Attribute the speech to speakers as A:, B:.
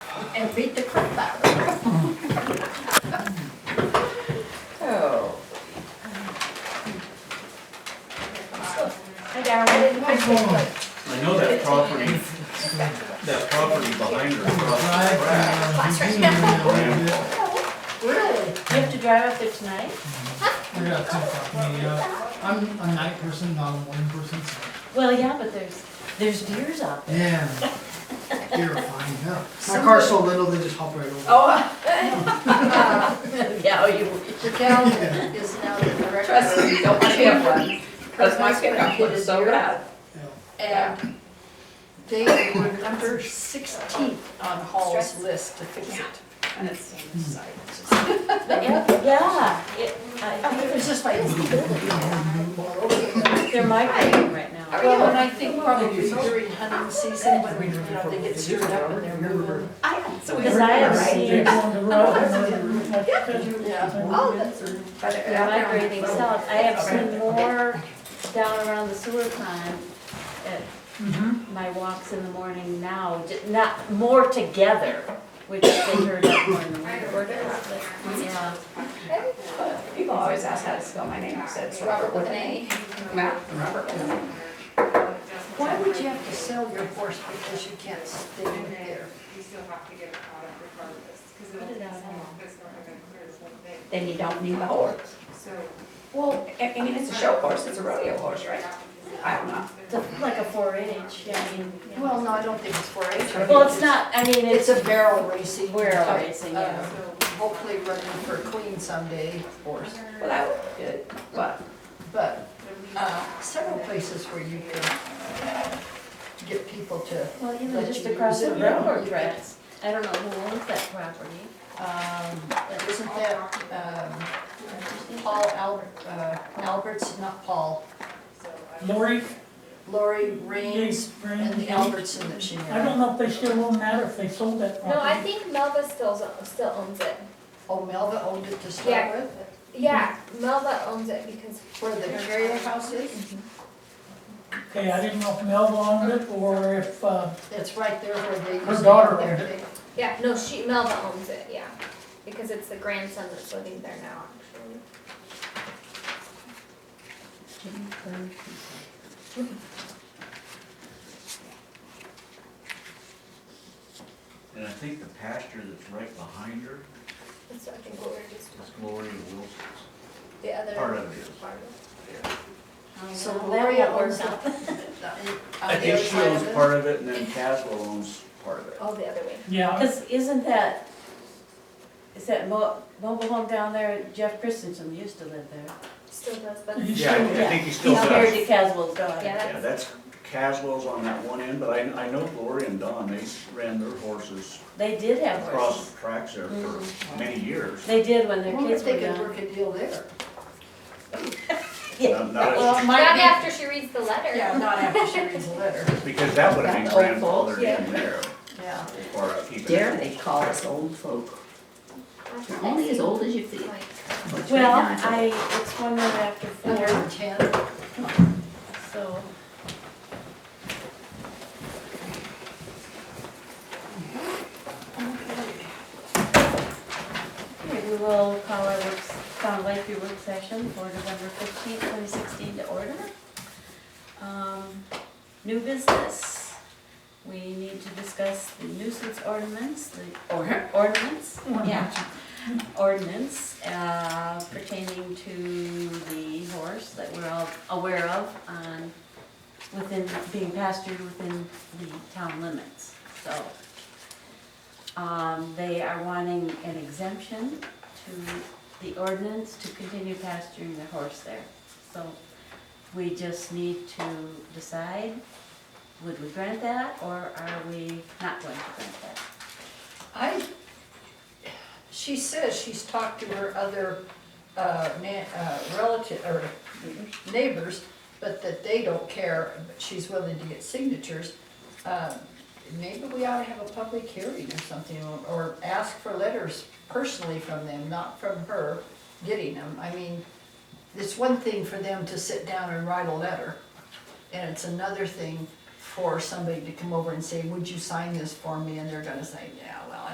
A: and beat the crap out of her.
B: Oh.
A: And I didn't like it,
C: I know that property, that property behind her across the track.
D: I
A: but really, you have to drive up there tonight?
D: got two fucking, yeah. I'm a night person, not a morning person, so.
A: Well, yeah, but there's, there's deers out there.
D: Yeah. Terrifying, yeah. My car's so little, they just hop right over.
A: Oh. Yeah, you.
E: The calendar is now the director.
B: Trust me, you don't want to get one, because my pickup was so bad.
D: Yeah.
E: And they were number sixteenth on Hall's list to fix it. Mm-hmm.
B: And it's inside.
A: But yeah, yeah, it, I
E: It
A: think
E: was just like, it's the building.
A: they're migrating right now.
E: Well, and I think probably during hunting season, when we, you know, they get stirred up and they're moving.
B: So we
A: Because I have seen,
B: But it-
A: they're migrating south, I have seen more down around the sewer plant at my walks in the morning now, j- not, more together, which they heard up more in the morning. Yeah,
B: People always ask how to spell my name, I said it's Robert with an A. Matt, Robert with an A.
E: Why would you have to sell your horse because you can't stay there?
F: You still have to get a product regardless, because it'll,
A: Put it out
F: it's
A: now.
F: not, it's not gonna clear the whole thing,
B: Then you don't need the horse.
F: so.
B: Well, I I mean, it's a show horse, it's a rodeo horse, right? I don't know.
A: it's a- like a four H, yeah, I mean, yeah.
E: Well, no, I don't think it's four H.
A: well, it's not, I mean,
E: It's
A: it's,
E: a barrel racing.
A: Barrel
E: type of
A: racing, yeah.
E: Hopefully running for queen someday, horse.
B: Well, that would be good, but
E: But uh, several places where you can get people to,
A: well, you know, just across the railroad tracks, I don't know who owns that property.
E: um, isn't that, um, Paul Al- uh, Alberts, not Paul,
G: Lori,
E: Lori Rains
G: Yates,
E: and the
G: Brandon,
E: Albertson that she
G: I don't
E: married.
G: know if they still own that or if they sold that property.
H: No, I think Melva still owns, still owns it.
E: Oh, Melva owned it to start
H: Yeah.
E: with,
H: Yeah, Melva owns it because
E: where the Terrio house is.
G: Okay, I didn't know if Mel owned it or if, uh,
E: It's right there where they.
G: Her daughter owned
E: it.
H: yeah, no, she Melva owns it. Yeah, because it's the grandson that's living there now. Actually,
C: And I think the pasture that's right behind her
H: that's what I think what we were just
C: is
H: talking.
C: Gloria Wilson's.
H: The other
C: Part of it is.
H: farm.
E: So
A: That
E: Gloria
A: won't work
E: owns it.
A: out.
C: I think she owns part of it and then Caswell owns part of it.
H: Oh, the other way.
G: yeah,
A: Because isn't that, is that mo- mobile home down there, Jeff Christensen used to live there.
H: Still does, but
G: He
C: Yeah, I
G: sold
C: I
G: it.
C: think he still
A: He's married
C: does.
A: to Caswell's daughter.
H: yeah,
C: Yeah,
H: that's
C: that's Caswell's on that one end, but I, I know Gloria and Don, they ran their horses
A: They did have
C: across
A: horses.
C: the tracks there for many years.
A: They did when
E: I
A: their
E: wonder
A: kids
E: if
A: were
E: they could
A: young.
E: work a deal there.
A: Yeah.
C: Not- not as-
E: Well, it
H: not
E: might
H: after she reads the letter.
E: be, yeah, not after she reads the letter,
C: Because that would have been grandfathered in there,
E: yeah.
C: or keeping.
B: dare they call us old folk? You're only as old as you feel.
H: Like,
B: which right
A: Well,
B: now I-
A: I, it's one minute after four,
E: Under ten.
A: so. Okay, we will call our works, Sound Lakeview work session for November fifteenth, twenty sixteen to order. Um, New business, we need to discuss the nuisance ordinance, the or- ordinance, yeah. Ordinance uh, pertaining to the horse that we're all aware of on, within, being pastured within the town limits, so. Um, they are wanting an exemption to the ordinance to continue pasturing the horse there. So we just need to decide, would we grant that or are we not going to grant that?
E: I, she says she's talked to her other uh, na- uh, relative, or neighbors, but that they don't care, but she's willing to get signatures. Um, Maybe we ought to have a public hearing or something, or- or ask for letters personally from them, not from her getting them. I mean, it's one thing for them to sit down and write a letter, and it's another thing for somebody to come over and say, would you sign this for me? And they're gonna say, yeah,